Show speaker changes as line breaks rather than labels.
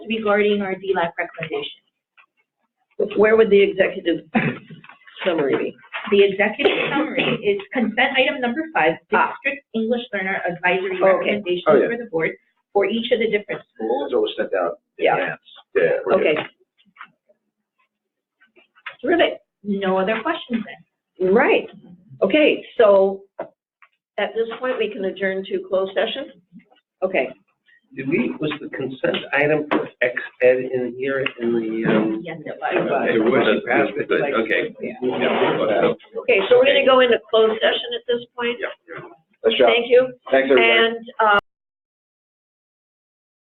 regarding our DLAP recommendation.
Where would the executive summary be?
The executive summary is consent item number five,
Ah.
district English learner advisory
Okay.
recommendations
Oh, yeah.
for the board for each of the different schools.
Those always sent out in
Yeah.
advance. Yeah. we're good.
Okay. Terrific,
No other questions then?
right, okay, so at this point, we can adjourn to closed session? Okay,
Did we, was the consent item for ex ed in here in the, um?
Yes, it
It
was.
It was,
was,
it passed,
it
but,
was,
okay.
yeah.
Yeah, well,
okay, so we're gonna go into closed session at this point,
yeah, yeah.
Nice job.
thank you,
Thanks, everybody.
and, uh,